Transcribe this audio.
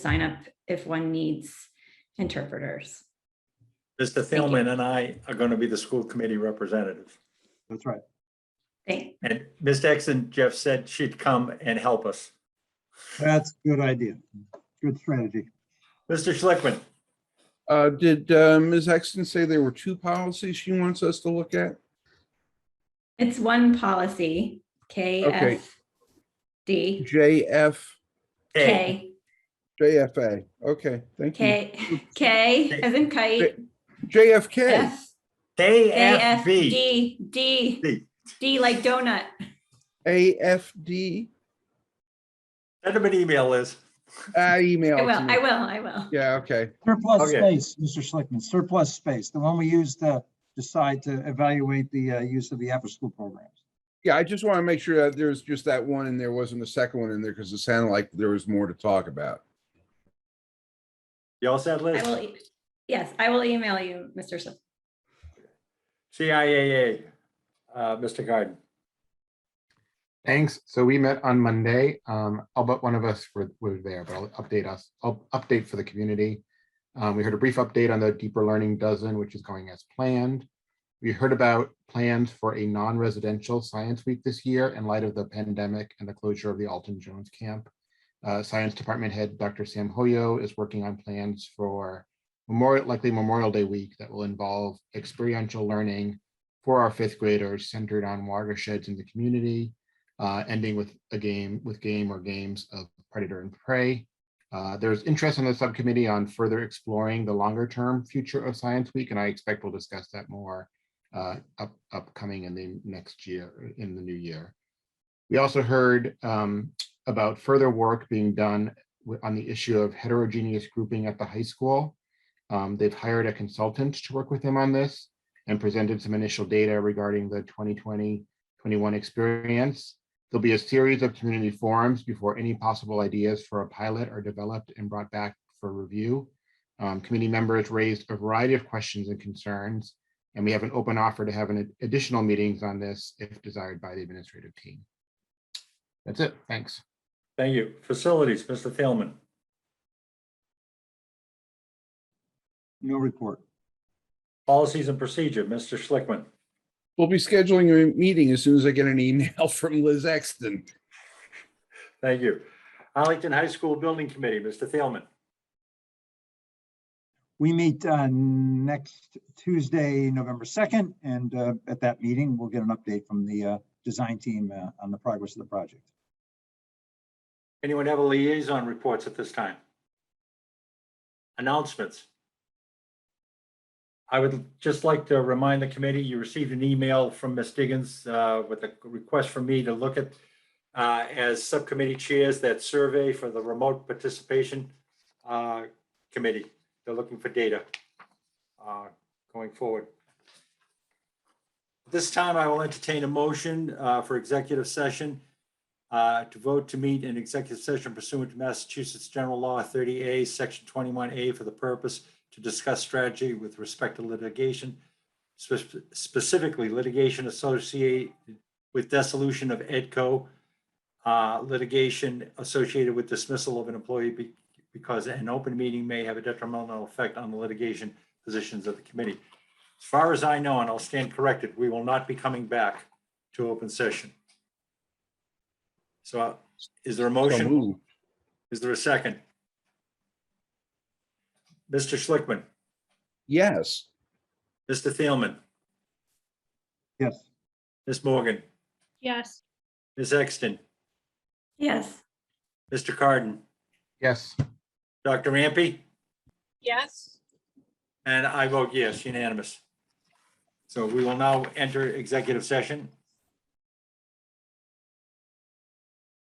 sign up if one needs interpreters. Mr. you. Thielman and I are going to be the school committee representative. That's right. Thank, And Ms. Exon, Jeff said she'd come and help us. That's a good idea. Good strategy. Mr. Schlickman, Uh, did uh, Ms. Exton say there were two policies she wants us to look at? it's one policy, Okay. KFD, JF, K, K, JFA. Okay, thank you. K, K as in kite, JFK. F, A, F, KFB. D, D, D. D like donut. AFD. Send him an email, Liz. I emailed. I will, I will, I will. Yeah, okay. Surplus Okay. space, Mr. Schlickman, surplus space, the one we used to decide to evaluate the uh, use of the after-school programs. Yeah, I just want to make sure that there's just that one and there wasn't a second one in there because it sounded like there was more to talk about. You all said, I Liz? will, e- yes, I will email you, Mr. Sl- CIAA, uh, Mr. Garden. Thanks. So we met on Monday. Um, I'll bet one of us were, were there, but I'll update us, I'll update for the community. Um, we heard a brief update on the deeper learning dozen, which is going as planned. We heard about plans for a non-residential science week this year in light of the pandemic and the closure of the Alton Jones camp. Uh, Science Department Head Dr. Sam Hoyo is working on plans for Memorial, likely Memorial Day week that will involve experiential learning for our fifth graders centered on watersheds in the community uh, ending with a game with game or games of predator and prey. Uh, there's interest on the subcommittee on further exploring the longer term future of Science Week, and I expect we'll discuss that more uh, up, upcoming in the next year, in the new year. We also heard um, about further work being done wi- on the issue of heterogeneous grouping at the high school. Um, they've hired a consultant to work with them on this and presented some initial data regarding the 2020 21 experience. There'll be a series of community forums before any possible ideas for a pilot are developed and brought back for review. Um, committee members raised a variety of questions and concerns, and we have an open offer to have an additional meetings on this if desired by the administrative team. That's it. Thanks. Thank you. Facilities, Mr. Thielman. No report. Policies and procedure, Mr. Schlickman. We'll be scheduling a meeting as soon as I get an email from Liz Exton. Thank you. Arlington High School Building Committee, Mr. Thielman. We meet uh, next Tuesday, November 2nd, and uh, at that meeting, we'll get an update from the uh, design team uh, on the progress of the project. Anyone have a liaison reports at this time? Announcements. I would just like to remind the committee, you received an email from Ms. Diggins uh, with a request from me to look at uh, as subcommittee chairs, that survey for the remote participation uh, committee. They're looking for data uh, going forward. This time I will entertain a motion uh, for executive session uh, to vote to meet in executive session pursuant to Massachusetts General Law 30A, Section 21A, for the purpose to discuss strategy with respect to litigation, spe- specifically litigation associated with dissolution of EDCO, uh, litigation associated with dismissal of an employee be- because an open meeting may have a detrimental effect on the litigation positions of the committee. As far as I know, and I'll stand corrected, we will not be coming back to open session. So uh, is there a So motion? moved. Is there a second? Mr. Schlickman, Yes. Mr. Thielman, Yes. Ms. Morgan, Yes. Ms. Exton, Yes. Mr. Carden, Yes. Dr. Ampe, Yes. and I vote yes, unanimous. So we will now enter executive session